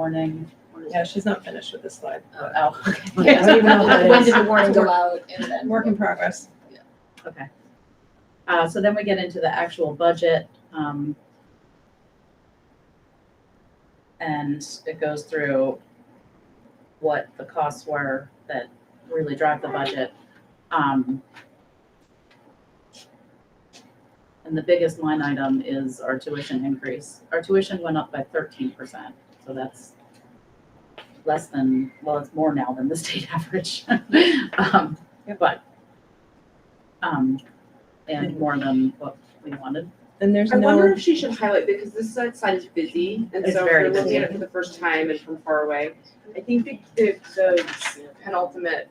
warning. Yeah, she's not finished with this slide. Oh, okay. I don't even know what that When is. did the warning go out and then? Work in progress. Okay. Uh, so then we get into the actual budget, um, and it goes through what the costs were that really drive the budget. Um, and the biggest line item is our tuition increase. Our tuition went up by thirteen percent, so that's less than, well, it's more now than the state average. Um, but, um, and more than what we wanted. And there's I wonder no, if she should highlight, because this side side is busy, and It's so if very you're looking busy. at it for the first time and from far away, I think the, the, the penultimate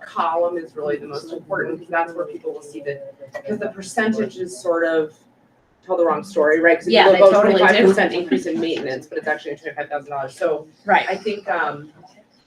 column is really the most important, because that's where people will see the, because the percentages sort of tell the wrong story, right? Yeah, they Because totally do. twenty-five percent increase in maintenance, but it's actually twenty-five thousand dollars, so I think, um,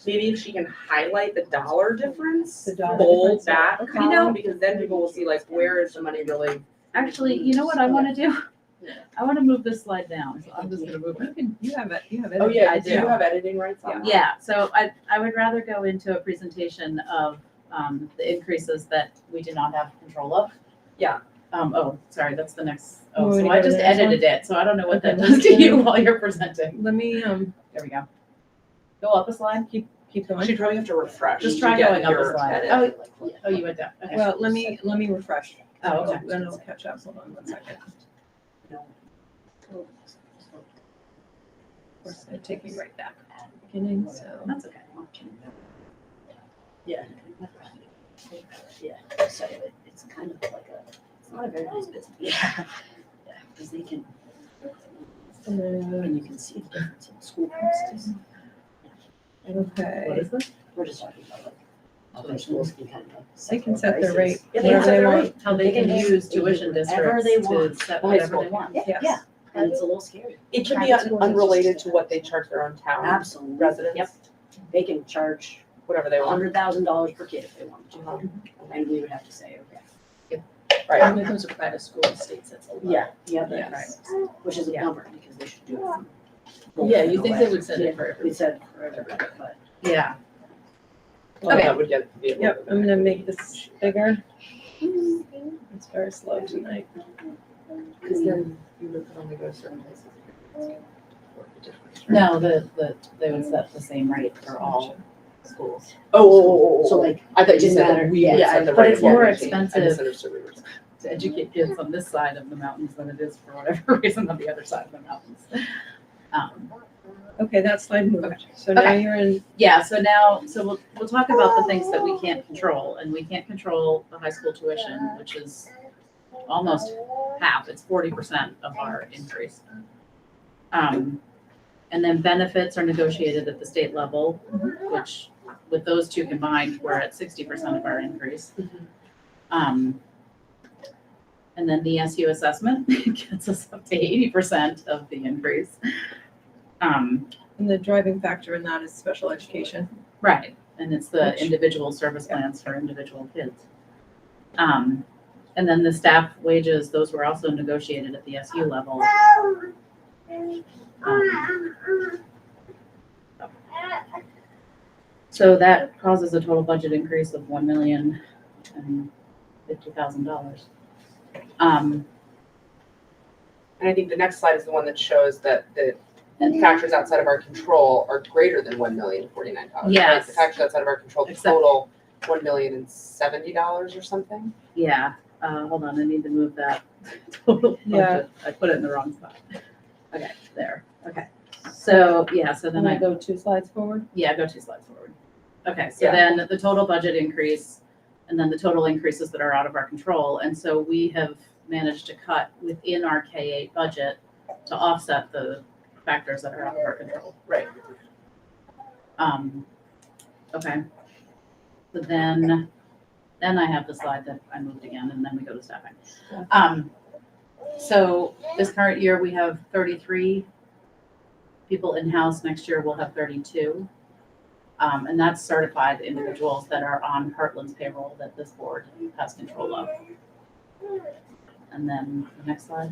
maybe if she can highlight the dollar difference, The dollar bold difference, yeah. that Okay. You know- column, because then people will see like, where is the money really Actually, you know what I wanna do? Yeah. I wanna move this slide down, so I'm just gonna move you it. can, you have it, you have it. Oh, yeah, I do you do. have editing rights on that? Yeah, so I, I would rather go into a presentation of, um, the increases that we do not have control of. Yeah. Um, oh, sorry, that's the next, You oh, want me so to I go to just the next one? edited it, so I don't know what that Okay, does to let's you do- while you're presenting. Let me, um, There we go. Go up a slide, keep, keep She'd going. probably have to refresh. Just to try get going up a your slide. edit. Oh, oh, you went down, okay. Well, let me, let me refresh. Oh, okay. Then it'll catch up. Hold on one second. Of course, it'll take me right back to the beginning, so. That's okay. Yeah. Yeah, so it- it's kind of like a, it's not a very nice business. Yeah. Because they can, and you can see the difference in school prices. What Okay. is this? We're just talking about like, other schools can kind of. like They can set their rate. prices. Yeah, they can whatever set their want. rate. How they can They can use do tuition whatever districts they to want. set The high whatever school they want. Yeah, Yes. yeah, and it's a little scary. It should be Private un- schools are just- unrelated to what they charge their own town Absolutely. Yep, residents, they can charge whatever they want, hundred thousand dollars per kid if they wanted Uh-huh. to, and we would have to say, okay. right? those are private school estates, that's a lot. Yeah, Yes. that's, which is a Yeah. bummer, because they should do it. from- Yeah, you think they would send Yeah, it for, we said for everybody, but. Yeah. Well, Okay. that would get. be a little Yep, bit- I'm gonna make this bigger. It's very slow tonight. Cause then you can only go to certain places. No, the, the, they would set the same rate for all schools. Oh, oh, oh, oh, So oh, like, I thought you Didn't said matter. that we Yeah, would set the but rate. it's Yeah, more I expensive. misunderstood what you were saying. To educate kids on this side of the mountains than it is for whatever reason on the other side of the mountains. Um, Okay, that slide moved. So now Okay. you're in, Yeah, so now, so we'll, we'll talk about the things that we can't control, and we can't control the high school tuition, which is almost half, it's forty percent of our increase. Um, and then benefits are negotiated at the state level, which with those two combined, we're at sixty percent of our increase. Um, and then the SU assessment gets us up to eighty percent of the increase. Um, and the driving factor in that is special education. Right, and it's the Which- individual service plans for individual kids. Um, and then the staff wages, those were also negotiated at the SU level. Um, So that causes a total budget increase of one million and fifty thousand dollars. Um, And I think the next slide is the one that shows that the factors outside of our control are greater than one million forty-nine dollars. Yes. The factors outside of our control Except- total, one million and seventy dollars or something? yeah, uh, hold on, I need to move that total Yeah. budget, I put it in the wrong spot. Okay, there, okay, so, yeah, so then Then I I go two slides forward. Yeah, go two slides forward. Okay, so Yeah. then the total budget increase and then the total increases that are out of our control. And so we have managed to cut within our K eight budget to offset the factors that are out of our control. Right. Um, okay. So then, then I have the slide that I moved again and then we go to staffing. Um, so this current year, we have thirty-three people in-house. Next year, we'll have thirty-two. Um, and that's certified individuals that are on Heartland's payroll that this board has control of. And then the next slide.